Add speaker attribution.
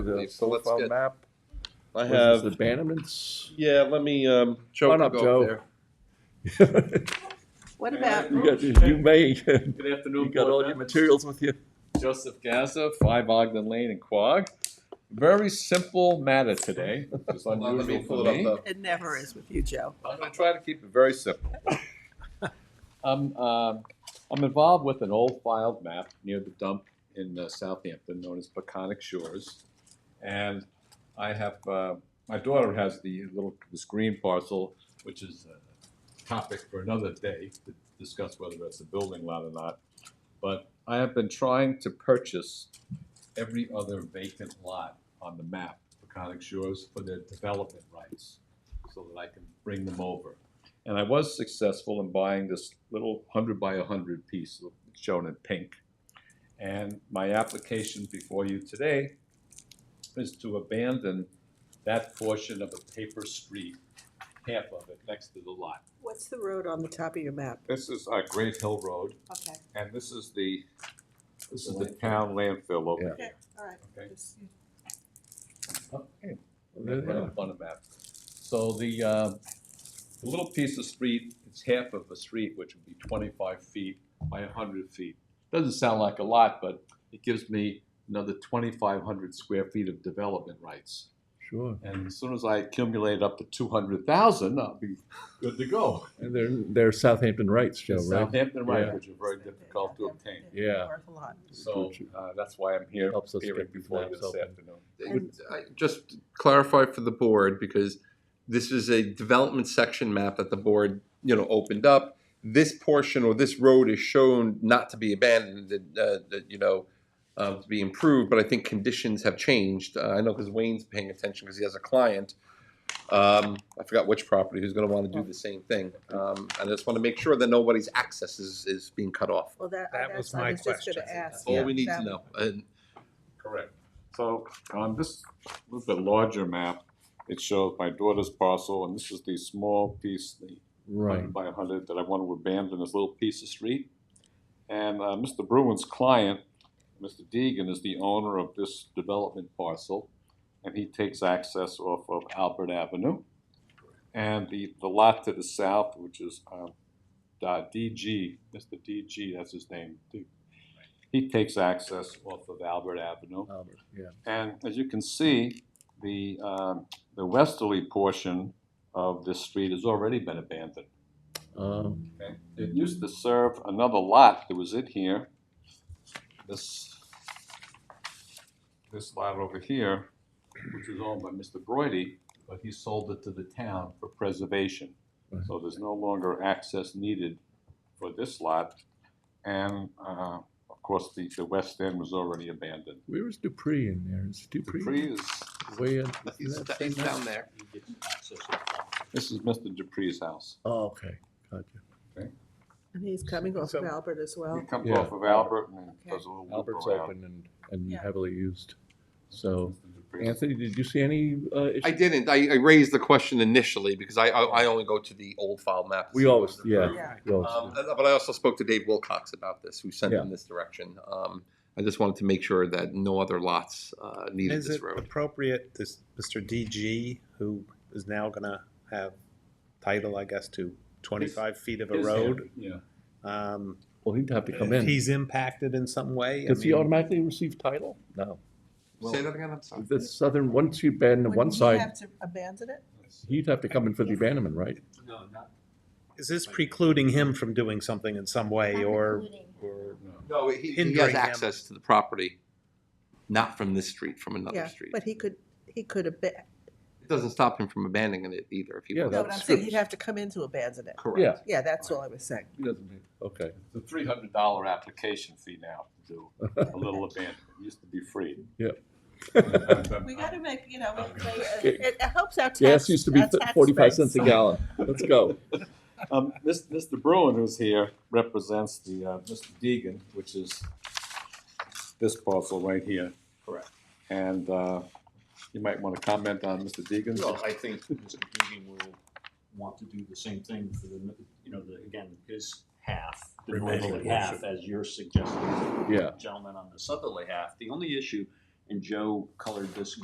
Speaker 1: The
Speaker 2: So let's
Speaker 1: profile
Speaker 2: get-
Speaker 1: map,
Speaker 2: I
Speaker 1: what is
Speaker 2: have,
Speaker 1: this, the Bannerman's?
Speaker 2: yeah, let me, um, Joe
Speaker 1: Come on
Speaker 2: can
Speaker 1: up,
Speaker 2: go
Speaker 1: Joe.
Speaker 2: there.
Speaker 1: You
Speaker 3: What about,
Speaker 1: got, you may, you
Speaker 4: Good afternoon.
Speaker 1: got
Speaker 4: Board
Speaker 1: all your
Speaker 4: members.
Speaker 1: materials with you.
Speaker 4: Joseph Gaza, Five Ogden Lane in Quogue. Very simple matter today, which is
Speaker 2: Hold on, Let me
Speaker 4: unusual
Speaker 2: pull
Speaker 4: for me.
Speaker 2: it up uh,
Speaker 3: it never is with you, Joe.
Speaker 4: I'm gonna try to keep it very simple. I'm, um, I'm involved with an old filed map near the dump in uh, Southampton known as Peconic Shores. And I have, uh, my daughter has the little, this green parcel, which is a topic for another day to discuss whether that's a building lot or not. But I have been trying to purchase every other vacant lot on the map, Peconic Shores, for their development rights so that I can bring them over. And I was successful in buying this little hundred by hundred piece shown in pink. And my application before you today is to abandon that portion of a paper street, half of it, next to the lot.
Speaker 3: What's the road on the top of your map?
Speaker 4: This is uh, Great Hill Road,
Speaker 3: Okay,
Speaker 4: and this is the, this is the town landfill over
Speaker 1: Yeah.
Speaker 4: here.
Speaker 3: okay, all right.
Speaker 4: Okay.
Speaker 3: Just-
Speaker 4: Okay. On a map. So the, uh, the little piece of street, it's half of a street, which would be twenty-five feet by hundred feet. Doesn't sound like a lot, but it gives me another twenty-five hundred square feet of development rights.
Speaker 1: Sure.
Speaker 4: And as soon as I accumulate up to two hundred thousand, I'll be good to go.
Speaker 1: And they're, they're Southampton rights, Joe, right?
Speaker 4: Southampton
Speaker 1: Yeah.
Speaker 4: rights, which are very difficult to obtain.
Speaker 1: Yeah.
Speaker 3: Worth a lot.
Speaker 4: So, uh, that's why I'm here,
Speaker 1: Helps us
Speaker 4: appearing
Speaker 1: get these
Speaker 4: before you
Speaker 1: maps
Speaker 4: this
Speaker 1: open.
Speaker 4: afternoon.
Speaker 3: And-
Speaker 5: I- Just to clarify for the board, because this is a development section map that the board, you know, opened up. This portion or this road is shown not to be abandoned, that, uh, that, you know, uh, to be improved, but I think conditions have changed. Uh, I know because Wayne's paying attention because he has a client. Um, I forgot which property, who's gonna wanna do the same thing. Um, and I just wanna make sure that nobody's access is, is being cut off.
Speaker 3: Well, that,
Speaker 6: That
Speaker 3: that's,
Speaker 6: was
Speaker 3: I
Speaker 6: my
Speaker 3: was just gonna
Speaker 6: question.
Speaker 3: ask.
Speaker 5: That's all we
Speaker 3: yeah,
Speaker 5: need to
Speaker 3: that-
Speaker 5: know. And
Speaker 4: Correct. So on this little bit larger map, it shows my daughter's parcel, and this is the small piece, the
Speaker 1: Right.
Speaker 4: hundred by hundred, that I want to abandon this little piece of street. And uh, Mr. Bruin's client, Mr. Deegan, is the owner of this development parcel, and he takes access off of Albert Avenue. And the, the lot to the south, which is um, uh, DG, Mr. DG, that's his name. D- He takes access off of Albert Avenue.
Speaker 1: Albert, Yeah.
Speaker 4: And as you can see, the, um, the westerly portion of this street has already been abandoned.
Speaker 1: Um,
Speaker 4: Okay. It used to serve another lot that was in here. This, this lot over here, which was owned by Mr. Brody, but he sold it to the town for preservation. So there's no longer access needed for this lot. And, uh, of course, the, the west end was already abandoned.
Speaker 1: Where is Dupree in there? Is Dupree
Speaker 4: Dupree is,
Speaker 1: way in?
Speaker 5: he's,
Speaker 1: isn't that
Speaker 5: he's
Speaker 1: same house?
Speaker 5: down there.
Speaker 4: this is Mr. Dupree's house.
Speaker 1: Oh, okay, gotcha.
Speaker 3: And he's coming off of
Speaker 6: So-
Speaker 3: Albert as well.
Speaker 4: He comes
Speaker 1: Yeah.
Speaker 4: off of Albert and then
Speaker 3: Oh. Okay.
Speaker 4: does a little loop
Speaker 1: Albert's
Speaker 4: around.
Speaker 1: open and, and
Speaker 3: Yeah.
Speaker 1: heavily used. So,
Speaker 4: Mr. Dupree's
Speaker 1: Anthony, did you see any, uh, issues?
Speaker 5: I didn't. I, I raised the question initially because I, I, I only go to the old file map. to
Speaker 1: We
Speaker 5: see
Speaker 1: always,
Speaker 5: what's
Speaker 1: yeah.
Speaker 5: approved.
Speaker 3: Yeah.
Speaker 1: we always
Speaker 5: Um,
Speaker 1: do.
Speaker 5: and- but I also spoke to Dave Wilcox about this, who sent
Speaker 1: Yeah.
Speaker 5: in this direction. Um, I just wanted to make sure that no other lots uh, needed
Speaker 6: Is
Speaker 5: this
Speaker 6: it
Speaker 5: road.
Speaker 6: appropriate, this Mr. DG, who is now gonna have title, I guess, to twenty-five feet of a
Speaker 4: His
Speaker 6: road?
Speaker 4: hand, Yeah.
Speaker 6: um,
Speaker 1: Well, he'd have to come
Speaker 6: If
Speaker 1: in.
Speaker 6: he's impacted in some way? I
Speaker 1: Does he
Speaker 6: mean,
Speaker 1: automatically receive title? No.
Speaker 5: Say that again. I'm sorry.
Speaker 1: The southern, once you ban
Speaker 3: Wouldn't
Speaker 1: one
Speaker 3: he
Speaker 1: side,
Speaker 3: Have to abandon it?
Speaker 1: he'd have to come in for the abandonment, right?
Speaker 4: No, not.
Speaker 6: Is this precluding him from doing something in some way, or?
Speaker 4: Or, no.
Speaker 5: No, he, he
Speaker 6: Hindering
Speaker 5: has
Speaker 6: him.
Speaker 5: access to the property, not from this street, from another
Speaker 3: Yeah,
Speaker 5: street.
Speaker 3: but he could, he could abandon,
Speaker 5: It doesn't stop him from abandoning it either. If he
Speaker 1: Yeah,
Speaker 5: wants.
Speaker 3: no, but I'm
Speaker 1: that's
Speaker 3: saying
Speaker 1: good.
Speaker 3: he'd have to come in to abandon it.
Speaker 5: correct.
Speaker 1: Yeah.
Speaker 3: Yeah, that's all I was saying.
Speaker 1: Okay.
Speaker 4: It's a three hundred dollar application fee now to do a little abandonment. It used to be free.
Speaker 1: Yeah.
Speaker 3: We gotta make, you know, we- we-
Speaker 1: Okay.
Speaker 3: it, it helps our tax.
Speaker 1: Gas used to be
Speaker 3: our tax
Speaker 1: forty-five
Speaker 3: base.
Speaker 1: cents a gallon. Let's go.
Speaker 4: Um, Mis- Mr. Bruin, who's here, represents the, uh, Mr. Deegan, which is this parcel right here. Correct. And, uh, you might wanna comment on Mr. Deegan's.
Speaker 7: Well, I think Mr. Deegan will want to do the same thing for the, you know, the, again, his half, the northerly half, as you're suggesting,
Speaker 1: Yeah.
Speaker 7: gentleman on the southerly half. The only issue, and Joe colored this